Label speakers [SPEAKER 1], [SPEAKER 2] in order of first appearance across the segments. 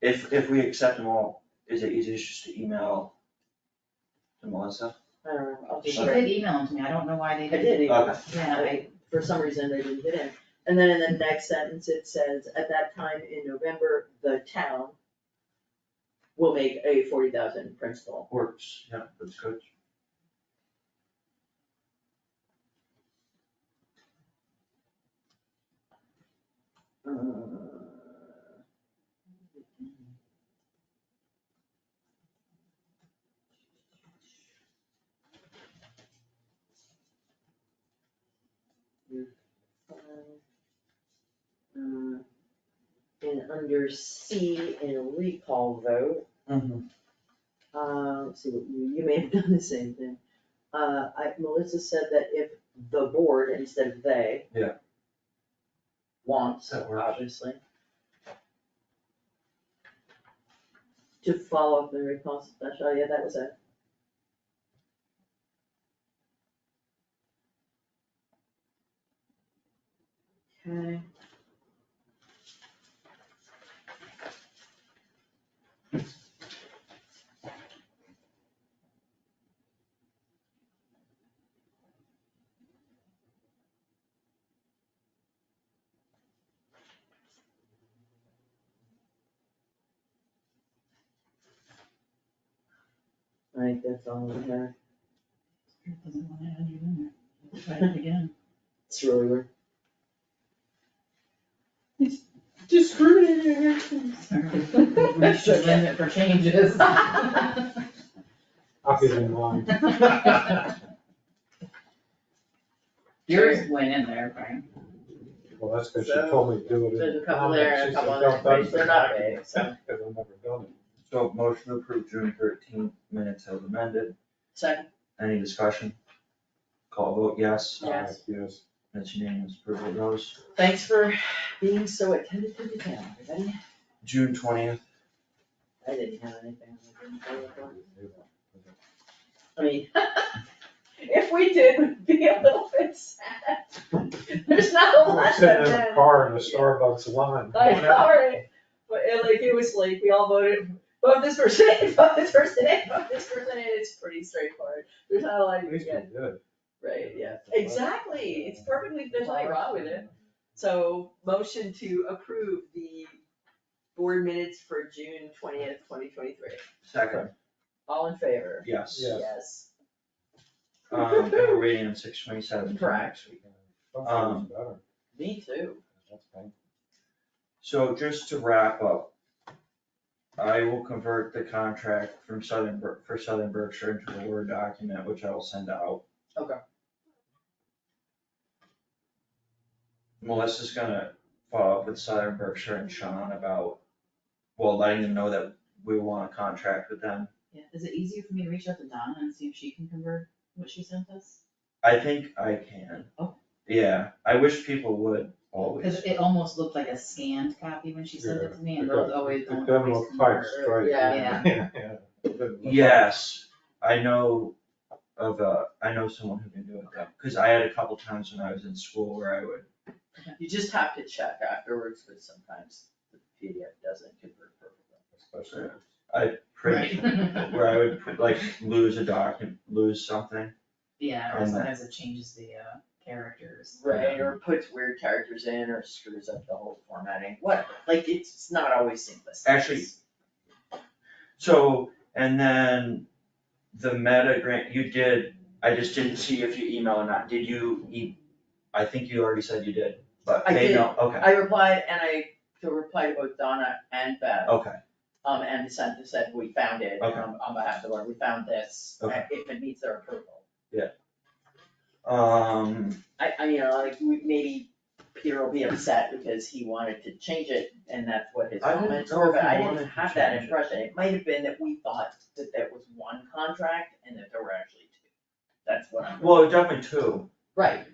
[SPEAKER 1] If, if we accept them all, is it easiest just to email to Melissa?
[SPEAKER 2] I don't know, I'll just
[SPEAKER 3] She
[SPEAKER 2] write.
[SPEAKER 3] did email them to me, I don't know why they
[SPEAKER 2] I did
[SPEAKER 3] didn't.
[SPEAKER 2] email,
[SPEAKER 1] Okay.
[SPEAKER 3] Yeah, I,
[SPEAKER 2] for some reason they didn't get in. And then in the next sentence, it says, at that time in November, the town will make a forty thousand principal.
[SPEAKER 1] Works, yeah, that's good.
[SPEAKER 2] Uh, Uh, And under C in a recall vote,
[SPEAKER 1] Mm-hmm.
[SPEAKER 2] uh, let's see, what you, you may have done the same thing. Uh, I, Melissa said that if the board instead of they.
[SPEAKER 1] Yeah.
[SPEAKER 2] Wants,
[SPEAKER 1] That works.
[SPEAKER 2] obviously. To follow up the recalls special, yeah, that was it. Okay. I think that's all we have.
[SPEAKER 3] Spirit doesn't wanna add you in there, try it again.
[SPEAKER 2] It's really weird.
[SPEAKER 3] Sorry. We should limit for changes.
[SPEAKER 4] I'll give it in line.
[SPEAKER 3] Yours went in there, Brian.
[SPEAKER 4] Well, that's because she
[SPEAKER 2] So,
[SPEAKER 4] told me to do it. in
[SPEAKER 2] There's a couple
[SPEAKER 4] comments.
[SPEAKER 2] there and a
[SPEAKER 4] She said,
[SPEAKER 2] couple on there,
[SPEAKER 4] "Don't
[SPEAKER 2] but
[SPEAKER 4] touch
[SPEAKER 2] they're
[SPEAKER 4] the
[SPEAKER 2] not
[SPEAKER 4] document,"
[SPEAKER 2] big, so,
[SPEAKER 4] Because I've never done it.
[SPEAKER 1] So motion to approve June thirteenth minutes as amended.
[SPEAKER 2] second,
[SPEAKER 1] Any discussion? Call vote yes,
[SPEAKER 2] Yes.
[SPEAKER 4] Uh, Yes.
[SPEAKER 1] that's unanimous, approval of those.
[SPEAKER 2] thanks for being so attentive to the town, everybody.
[SPEAKER 1] June twentieth,
[SPEAKER 2] I didn't have anything. I didn't follow up on. I mean, if we did, we'd be a little bit sad. There's not a
[SPEAKER 4] I'm
[SPEAKER 2] lot of
[SPEAKER 4] sitting in a
[SPEAKER 2] that.
[SPEAKER 4] car in a Starbucks line.
[SPEAKER 2] I know, right? But it, like, it was like, we all voted, vote this person in, vote this person in, vote this person in, it's pretty straightforward. There's not a lot
[SPEAKER 4] At
[SPEAKER 2] you
[SPEAKER 4] least we
[SPEAKER 2] get,
[SPEAKER 4] did it.
[SPEAKER 2] right, yeah, exactly, it's perfectly, there's nothing wrong with it. So motion to approve the board minutes for June twentieth, twenty twenty-three.
[SPEAKER 1] second,
[SPEAKER 2] All in favor?
[SPEAKER 1] yes.
[SPEAKER 4] Yes.
[SPEAKER 2] Yes.
[SPEAKER 1] Um, and we're waiting on six twenty-seven for
[SPEAKER 2] Correct.
[SPEAKER 1] next week. Um,
[SPEAKER 4] Sometimes it's better.
[SPEAKER 2] Me too.
[SPEAKER 4] That's fine.
[SPEAKER 1] So just to wrap up, I will convert the contract from Southern, Ber- for Southern Berkshire into a Word document, which I will send out.
[SPEAKER 2] Okay.
[SPEAKER 1] Melissa's gonna follow up with Southern Berkshire and Sean about, well, letting them know that we want a contract with them.
[SPEAKER 3] Yeah, is it easier for me to reach out to Donna and see if she can convert what she sent us?
[SPEAKER 1] I think I can.
[SPEAKER 3] Oh.
[SPEAKER 1] Yeah, I wish people would always.
[SPEAKER 4] Oh,
[SPEAKER 3] Cause it almost looked like a scanned copy when she sent it to me, and those always
[SPEAKER 4] It
[SPEAKER 3] don't always
[SPEAKER 4] doesn't look typed
[SPEAKER 3] convert.
[SPEAKER 4] straight.
[SPEAKER 3] Yeah.
[SPEAKER 4] Yeah, yeah. It doesn't look
[SPEAKER 1] Yes, I know of a, I know someone who can do it though, cause I had a couple times when I was in school where I would,
[SPEAKER 2] You just have to check afterwards, because sometimes the PDF doesn't convert perfectly.
[SPEAKER 4] typed, especially if it's
[SPEAKER 1] I'd print,
[SPEAKER 3] Right.
[SPEAKER 1] where I would pr- like lose a document, lose something.
[SPEAKER 3] Yeah, or
[SPEAKER 1] And-
[SPEAKER 3] sometimes it changes the uh characters.
[SPEAKER 2] Right, or puts weird characters in, or screws up the whole formatting, whatever, like, it's it's not always seamless.
[SPEAKER 1] Actually- So, and then the meta grant, you did, I just didn't see if you emailed or not, did you e- I think you already said you did, but
[SPEAKER 2] I
[SPEAKER 1] they
[SPEAKER 2] did.
[SPEAKER 1] know, okay,
[SPEAKER 2] I replied, and I, to reply to both Donna and Beth,
[SPEAKER 1] okay,
[SPEAKER 2] um, and sent, said, we found it,
[SPEAKER 1] Okay.
[SPEAKER 2] um, on behalf of the board, we found this, and
[SPEAKER 1] Okay.
[SPEAKER 2] if it meets their approval.
[SPEAKER 1] um,
[SPEAKER 2] I, I, you know, like, we- maybe Peter will be upset because he wanted to change it, and that's what his
[SPEAKER 1] I didn't
[SPEAKER 2] comments
[SPEAKER 1] know
[SPEAKER 2] were,
[SPEAKER 1] if
[SPEAKER 2] but
[SPEAKER 1] he
[SPEAKER 2] I
[SPEAKER 1] wanted
[SPEAKER 2] didn't
[SPEAKER 1] to
[SPEAKER 2] have that
[SPEAKER 1] change it.
[SPEAKER 2] impression, it might have been that we thought that there was one contract and that there were actually two. That's what I'm.
[SPEAKER 1] well, definitely two,
[SPEAKER 2] Right.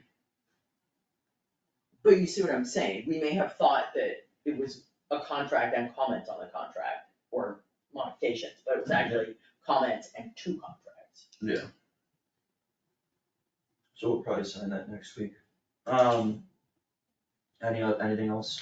[SPEAKER 2] But you see what I'm saying, we may have thought that it was a contract and comments on the contract, or modifications, but it was actually comments and two contracts.
[SPEAKER 1] so we'll probably sign that next week. Um, any, oth- anything else?